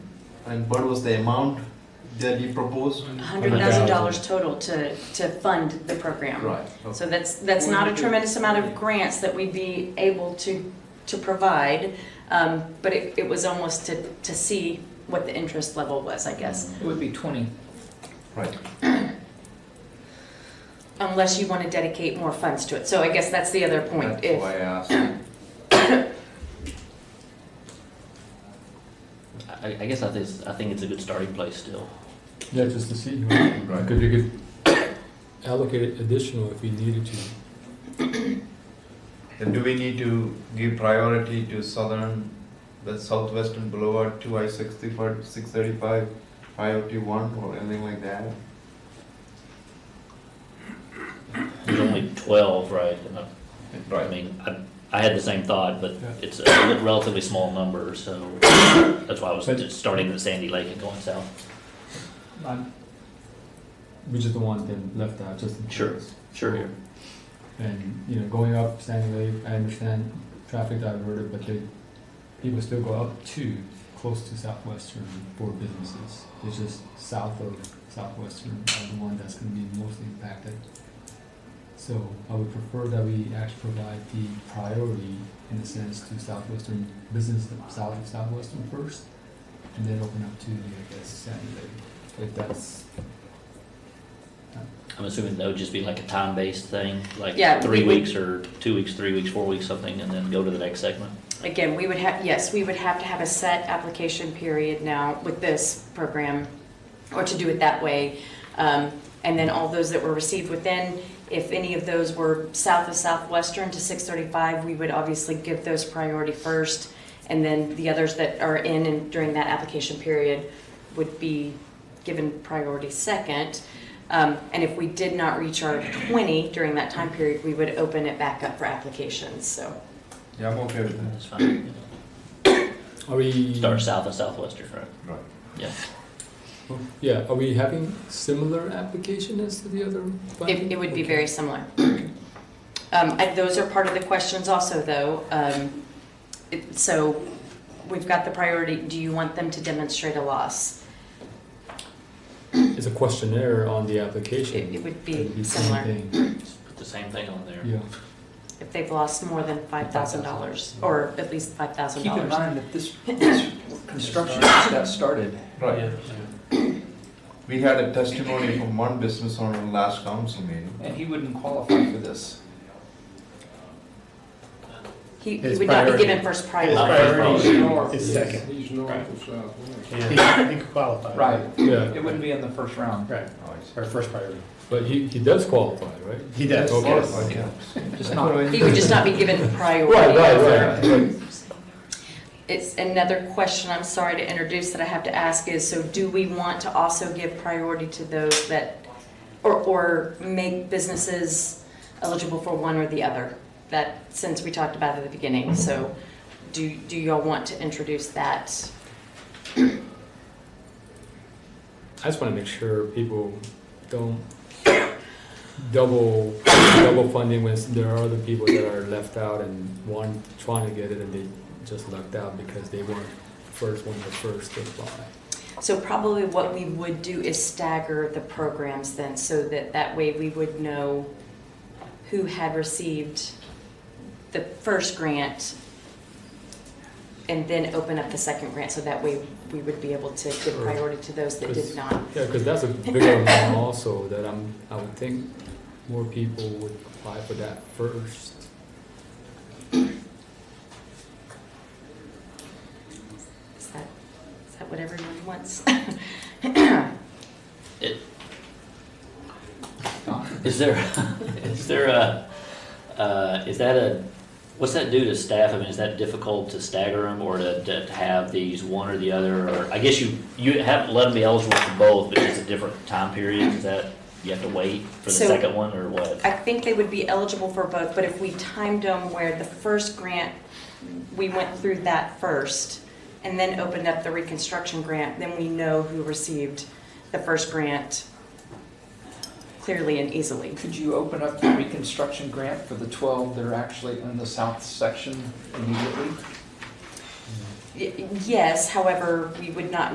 And what was the amount that you proposed? Hundred thousand dollars total to, to fund the program. Right. So that's, that's not a tremendous amount of grants that we'd be able to, to provide, um, but it, it was almost to, to see what the interest level was, I guess. It would be twenty. Right. Mm-hmm. Unless you want to dedicate more funds to it. So I guess that's the other point. That's why I If, asked. I, I guess I think, it's- I think it's a good starting place still. Yeah, just to see, because you could allocate it additional if you needed to. And do we need to give priority to southern, the southwestern Boulevard, two I sixty-five, six thirty-five, five oh two one, or anything like that? There's only twelve, right? And I- I mean, I, I had the same thought, but Yeah. it's a relatively small number, so that's why I was But- just starting at Sandy Lake and going south. We just don't want them left out, just in Sure. case. Sure. And, you know, going up Sandy Lake, I understand traffic diverted, but they, people still go up to, close to Southwestern for businesses. It's just south of Southwestern are the one that's gonna be most impacted. So I would prefer that we actually provide the priority, in a sense, to Southwestern business south of Southwestern first, and then open up to, I guess, Sandy Lake, if that's I'm assuming that would just be like a time-based thing, like Yeah, three we would- weeks or two weeks, three weeks, four weeks, something, and then go to the next segment. again, we would have, yes, we would have to have a set application period now with this program, or to do it that way. Um, And then all those that were received within, if any of those were south of Southwestern to 635, we would obviously give those priority first. And then the others that are in and during that application period would be given priority second. Um, And if we did not reach our 20 during that time period, we would open it back up for applications, so. Yeah, I'm okay with that. That's fine. Are we? Start south of Southwestern, right? Right. Yeah. Yeah, are we having similar application as to the other? It, finding? it would be Okay. very similar. Um, and those are part of the questions also, though. Um, it- so we've got the priority, do you want them to demonstrate a loss? It's a questionnaire on the application. It, it would It'd be the same similar, thing. Just Put the same thing on there. Yeah, if they've lost more than five thousand dollars, or at least five thousand Keep in dollars. mind that this, this construction just got started. Right. We had a testimony from one business owner in last council meeting. And he wouldn't qualify for this. He, he His would not be priority. given first His priority. priority is It's second. He's north of southwest. He could qualify. Right. yeah, It wouldn't be in the first round, Right, Oh, I see. or first priority. but he, he does qualify, right? He does. Okay. Yes, Okay. yeah. just not. He would just not be given priority. Right, right, right. It's another question, I'm sorry to introduce, that I have to ask is, so do we want to also give priority to those that, or, or make businesses eligible for one or the other? That, since we talked about it at the beginning, so do, do y'all want to introduce that? I just want to make sure people don't double, double funding when there are other people that are left out and one trying to get it and they just lucked out because they weren't first one, the first to apply. So probably what we would do is stagger the programs then, so that that way we would know who had received the first grant and then open up the second grant, so that way we would be able to give Sure. priority to those that did Because- not. Yeah, because that's a bigger amount also that I'm, I would think more people would apply for that first. Is that, is that what everyone wants? It- Is there, is there a, uh, is that a, what's that do to staff? I mean, is that difficult to stagger them or to, to have these one or the other? Or I guess you, you haven't let them be eligible for both, but it's a different time period. Is that, you have to wait for the So- second one or what? I think they would be eligible for both, but if we timed them where the first grant, we went through that first and then opened up the reconstruction grant, then we know who received the first grant clearly and easily. Could you open up the reconstruction grant for the 12 that are actually in the south section immediately? Y- Yes, however, we would not